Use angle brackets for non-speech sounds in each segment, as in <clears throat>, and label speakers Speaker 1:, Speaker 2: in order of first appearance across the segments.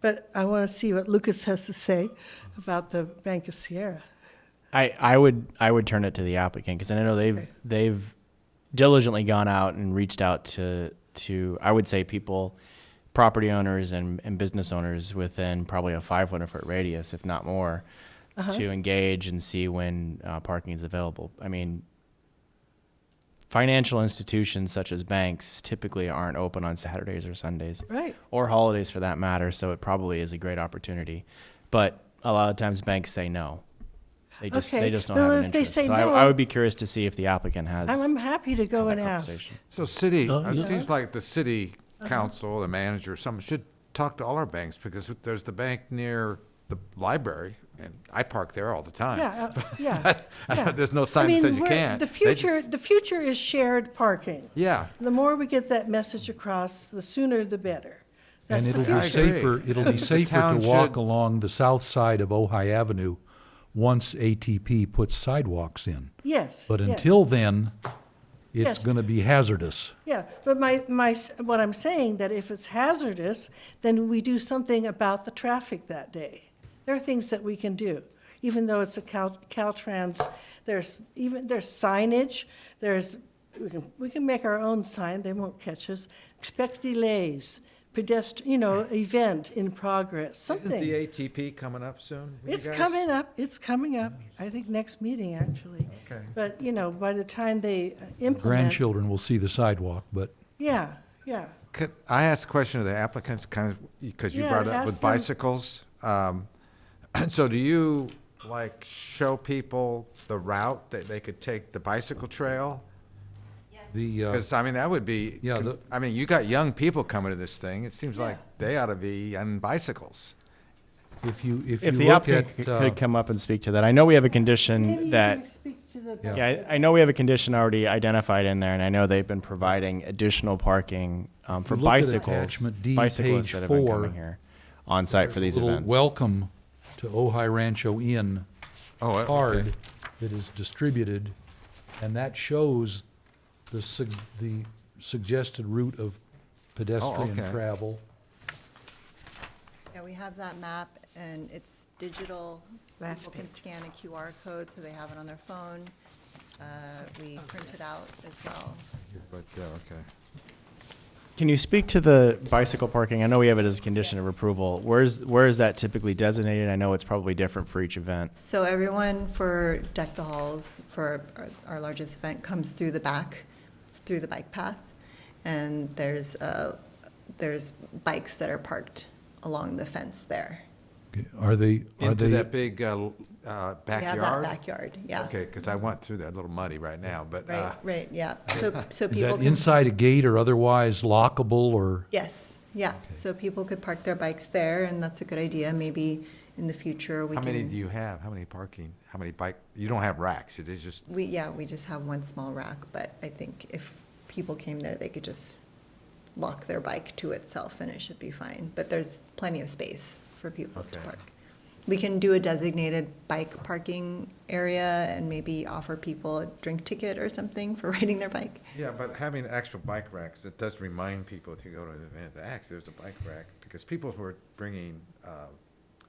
Speaker 1: But I want to see what Lucas has to say about the Bank of Sierra.
Speaker 2: I, I would I would turn it to the applicant because I know they've they've diligently gone out and reached out to to I would say people, property owners and, and business owners within probably a 500 foot radius, if not more, to engage and see when uh, parking is available. I mean, financial institutions such as banks typically aren't open on Saturdays or Sundays
Speaker 1: Right.
Speaker 2: or holidays for that matter. So it probably is a great opportunity, but a lot of times banks say no. They just
Speaker 1: Okay,
Speaker 2: they just don't
Speaker 1: well,
Speaker 2: have an
Speaker 1: if they
Speaker 2: interest.
Speaker 1: say
Speaker 2: so
Speaker 1: no-
Speaker 2: I, I would be curious to see if the applicant has.
Speaker 1: I'm, I'm happy to go
Speaker 2: had
Speaker 1: and
Speaker 2: that
Speaker 1: ask.
Speaker 2: conversation.
Speaker 3: So city,
Speaker 4: Oh,
Speaker 3: it
Speaker 4: yeah.
Speaker 3: seems like the city
Speaker 1: Uh-huh.
Speaker 3: council, the manager, someone should talk to all our banks because there's the bank near the library and I park there all the time. <laughs>
Speaker 1: Yeah, uh, yeah, yeah.
Speaker 3: There's no
Speaker 1: I
Speaker 3: sign that
Speaker 1: mean,
Speaker 3: says you
Speaker 1: we're-
Speaker 3: can't.
Speaker 1: The
Speaker 3: They
Speaker 1: future,
Speaker 3: just-
Speaker 1: the future is shared parking.
Speaker 3: Yeah.
Speaker 1: The more we get that message across, the sooner the better.
Speaker 4: And
Speaker 1: That's the
Speaker 4: it'll
Speaker 1: future.
Speaker 4: be
Speaker 3: future. I agree.
Speaker 4: safer, it'll be safer to
Speaker 3: town
Speaker 4: walk
Speaker 3: should-
Speaker 4: along the south side of Ojai Avenue once ATP puts sidewalks in.
Speaker 1: Yes.
Speaker 4: But
Speaker 1: yes.
Speaker 4: until then,
Speaker 1: Yes.
Speaker 4: it's gonna be hazardous.
Speaker 1: Yeah, but my, my, s- what I'm saying, that if it's hazardous, then we do something about the traffic that day. There are things that we can do, even though it's a Cal, Caltrans, there's even, there's signage, there's, we can, we can make our own sign, they won't catch us. Expect delays, pedestrian, you know, event in progress, something.
Speaker 3: Isn't the ATP coming up soon? with you
Speaker 1: It's
Speaker 3: guys?
Speaker 1: coming up, it's coming up, I think next meeting, actually.
Speaker 3: Okay.
Speaker 1: But, you know, by the time they uh, implement,
Speaker 4: Grandchildren will see the sidewalk, but
Speaker 1: yeah, yeah.
Speaker 3: Could I ask a question of the applicants, kind of, because you
Speaker 1: Yeah,
Speaker 3: brought it up
Speaker 1: ask
Speaker 3: with
Speaker 1: them.
Speaker 3: bicycles? Um, <clears throat> So do you, like, show people the route that they could take, the bicycle trail?
Speaker 4: the, uh,
Speaker 3: Because, I mean, that would be,
Speaker 4: Yeah, the-
Speaker 3: I mean, you got young people coming to this thing. It seems like they ought to be on bicycles.
Speaker 4: if you, if you
Speaker 2: If the
Speaker 4: look
Speaker 2: applicant
Speaker 4: at,
Speaker 2: c-
Speaker 4: uh,
Speaker 2: could come up and speak to that, I know we have a condition that. Yeah, I, I know we have a condition already identified in there, and I know they've been providing additional parking um, for
Speaker 4: Look at
Speaker 2: bicycles,
Speaker 4: attachment D,
Speaker 2: bicyclists
Speaker 4: page
Speaker 2: that have been
Speaker 4: four.
Speaker 2: coming here on site for these
Speaker 4: little
Speaker 2: events.
Speaker 4: welcome to Ojai Rancho Inn
Speaker 3: Oh, uh, okay.
Speaker 4: card that is distributed, and that shows the sug- the suggested route of pedestrian
Speaker 3: Oh, okay.
Speaker 4: travel.
Speaker 5: Yeah, we have that map, and it's digital.
Speaker 1: Last
Speaker 5: People can
Speaker 1: page.
Speaker 5: scan a QR code, so they have it on their phone. Uh, We
Speaker 1: Oh,
Speaker 5: print it out as well.
Speaker 3: But, uh, okay.
Speaker 2: Can you speak to the bicycle parking? I know we have it as a condition of approval. Where's where is that typically designated? I know it's probably different for each event.
Speaker 5: So everyone for Deck the Halls, for our- our largest event, comes through the back, through the bike path. And there's, uh, there's bikes that are parked along the fence there.
Speaker 4: Are they, are
Speaker 3: Into
Speaker 4: they,
Speaker 3: that big uh, l- uh,
Speaker 5: We have that
Speaker 3: backyard?
Speaker 5: backyard, yeah.
Speaker 3: Okay, because I went through that, a little muddy right now, but, uh,
Speaker 5: Right, right,
Speaker 3: <laughs>
Speaker 5: yeah. So, so
Speaker 4: is
Speaker 5: people
Speaker 4: that
Speaker 5: can
Speaker 4: inside a gate or otherwise lockable, or?
Speaker 5: Yes, yeah, so people could park their bikes there, and that's a good idea, maybe in the future we
Speaker 3: how
Speaker 5: can.
Speaker 3: many do you have? How many parking? How many bike? You don't have racks. It is just
Speaker 5: We, yeah, we just have one small rack, but I think if people came there, they could just lock their bike to itself and it should be fine, but there's plenty of space for people to
Speaker 3: Okay.
Speaker 5: park. We can do a designated bike parking area and maybe offer people a drink ticket or something for <laughs> riding their bike.
Speaker 3: Yeah, but having actual bike racks, it does remind people to go to an event, actually, there's a bike rack, because people who are bringing uh,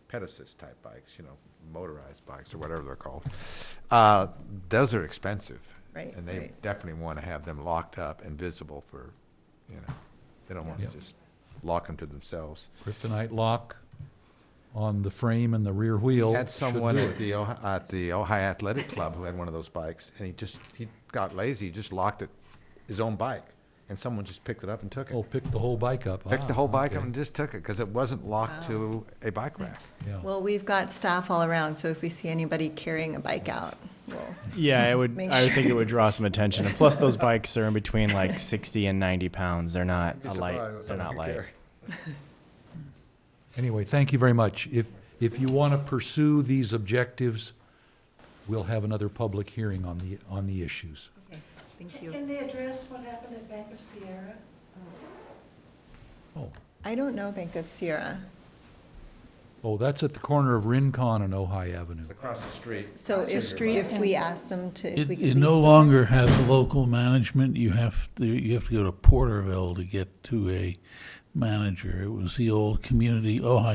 Speaker 3: pedicist type bikes, you know, motorized bikes or whatever they're called, uh, those are expensive.
Speaker 5: Right,
Speaker 3: And they
Speaker 5: right.
Speaker 3: definitely want to have them locked up and visible for, you know, they don't want
Speaker 4: Yeah.
Speaker 3: to just lock them to themselves.
Speaker 4: Kryptonite lock on the frame and the rear wheel.
Speaker 3: Had
Speaker 4: should
Speaker 3: someone
Speaker 4: do
Speaker 3: at
Speaker 4: it.
Speaker 3: the, Ohi- at the Ojai Athletic Club who had one of those bikes, and he just, he got lazy, he just locked it, his own bike, and someone just picked it up and took it.
Speaker 4: Oh, pick the whole bike up.
Speaker 3: picked the
Speaker 4: Ah,
Speaker 3: whole bike up
Speaker 4: okay.
Speaker 3: and just took it because it wasn't locked to
Speaker 2: Oh.
Speaker 3: a bike rack.
Speaker 4: Yeah.
Speaker 5: Well, we've got staff all around, so if we see anybody carrying a bike out, we'll
Speaker 2: Yeah, it would.
Speaker 5: Make
Speaker 2: I would
Speaker 5: sure.
Speaker 2: think it would draw some attention. And plus,
Speaker 5: <laughs>
Speaker 2: those bikes are in between like 60 and 90 pounds. They're not a light. They're not light.
Speaker 4: Anyway, thank you very much. If, if you want to pursue these objectives, we'll have another public hearing on the, on the issues.
Speaker 5: Thank you.
Speaker 1: Can they address what happened at Bank of Sierra?
Speaker 4: Oh,
Speaker 5: I don't know Bank of Sierra.
Speaker 4: oh, that's at the corner of Rincon and Ojai Avenue.
Speaker 3: Across the street.
Speaker 5: So if, if we ask them to, if we
Speaker 6: It,
Speaker 5: could.
Speaker 6: you
Speaker 5: lease
Speaker 6: no
Speaker 5: the-
Speaker 6: longer have local management, you have to, you have to go to Porterville to get to a manager. It was the old community, Ojai